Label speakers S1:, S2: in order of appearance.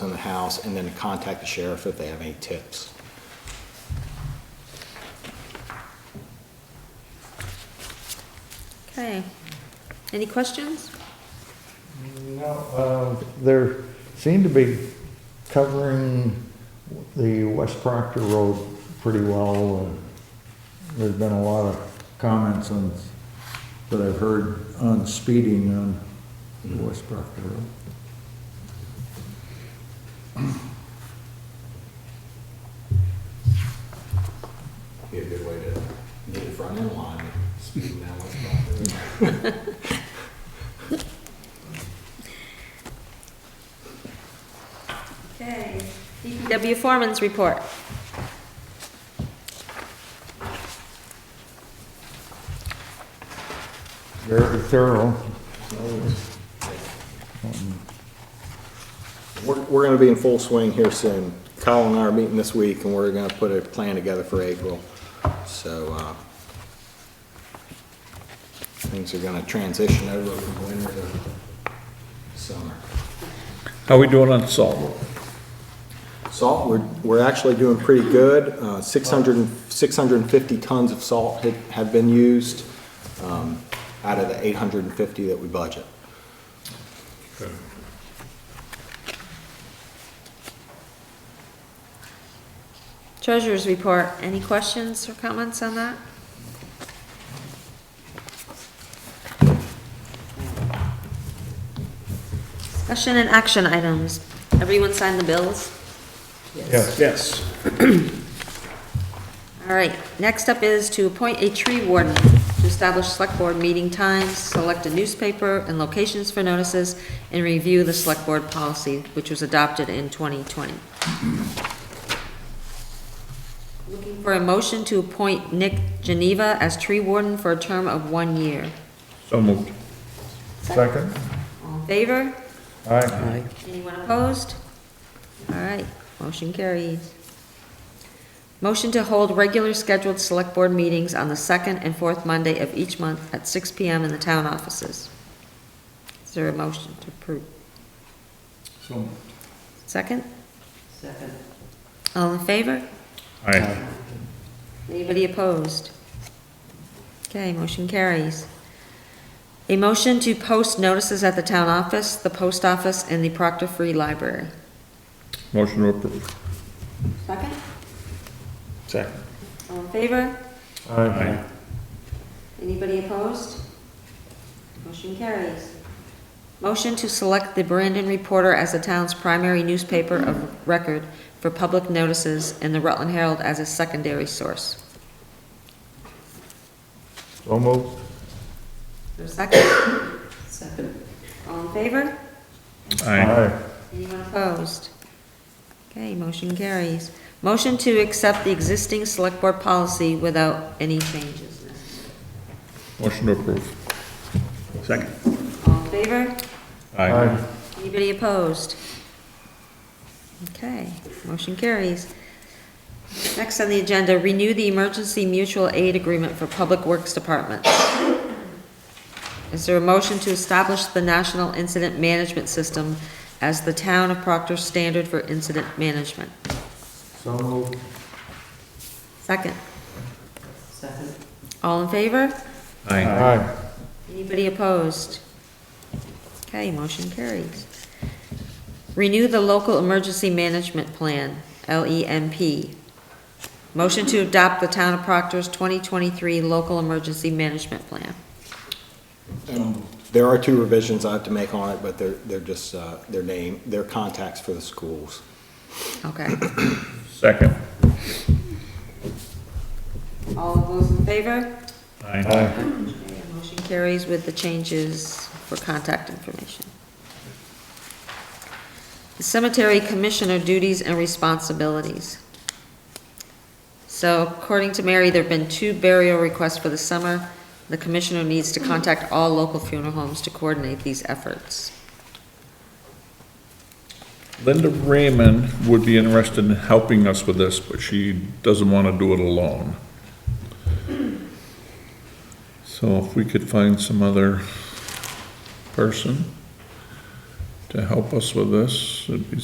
S1: house and then contact the sheriff if they have any tips.
S2: Okay. Any questions?
S3: No, uh, there seemed to be covering the West Proctor Road pretty well. and There's been a lot of comments on, that I've heard on speeding on the West Proctor Road.
S1: Be a good way to get in front of the line, speed down what's proper.
S2: Okay. DPW foreman's report.
S3: Very thorough.
S1: We're, we're gonna be in full swing here soon. Kyle and I are meeting this week, and we're gonna put a plan together for April, so, uh, things are gonna transition over from winter to summer.
S4: How we doing on salt?
S1: Salt, we're, we're actually doing pretty good. Uh, 600, and- 650 tons of salt had- have been used um, out of the 850 that we budget.
S2: Treasurer's report. Any questions or comments on that? Discussion and action items. Everyone signed the bills?
S4: Yes.
S2: All right, next up is to appoint a tree warden to establish select board meeting times, select a newspaper and locations for notices, and review the select board policy, which was adopted in 2020. Looking for a motion to appoint Nick Geneva as tree warden for a term of one year.
S4: So moved.
S3: Second?
S2: All in favor?
S3: Aye.
S2: Anyone opposed? All right, motion carries. Motion to hold regular scheduled select board meetings on the second and fourth Monday of each month at six PM in the town offices. Is there a motion to approve?
S3: So moved.
S2: Second? Second. All in favor?
S4: Aye.
S2: Anybody opposed? Okay, motion carries. A motion to post notices at the town office, the post office, and the Proctor Free Library.
S4: Motion to approve.
S2: Second?
S4: Second.
S2: All in favor?
S3: Aye.
S2: Anybody opposed? Motion carries. Motion to select the Brandon Reporter as the town's primary newspaper of record for public notices and the Rutland Herald as a secondary source.
S3: So moved.
S2: Is there a Second? Second. All in favor?
S4: Aye.
S2: Anyone opposed? Okay, motion carries. Motion to accept the existing select board policy without any changes.
S4: Motion to approve. Second.
S2: All in favor?
S3: Aye.
S2: Anybody opposed? Okay, motion carries. Next on the agenda, renew the emergency mutual aid agreement for Public Works Department. Is there a motion to establish the National Incident Management System as the town of Proctor's standard for incident management?
S3: So moved.
S2: Second. Second. All in favor?
S4: Aye.
S3: Aye.
S2: Anybody opposed? Okay, motion carries. Renew the local emergency management plan, LEMP. Motion to adopt the town of Proctor's 2023 local emergency management plan.
S1: And There are two revisions I have to make on it, but they're, they're just, uh, their name, their contacts for the schools.
S2: Okay.
S4: Second.
S2: All of those in favor?
S4: Aye.
S2: Okay, Motion carries with the changes for contact information. The Cemetery Commissioner duties and responsibilities. So according to Mary, there've been two burial requests for the summer. The commissioner needs to contact all local funeral homes to coordinate these efforts.
S4: Linda Raymond would be interested in helping us with this, but she doesn't want to do it alone. So if we could find some other person to help us with this, it'd be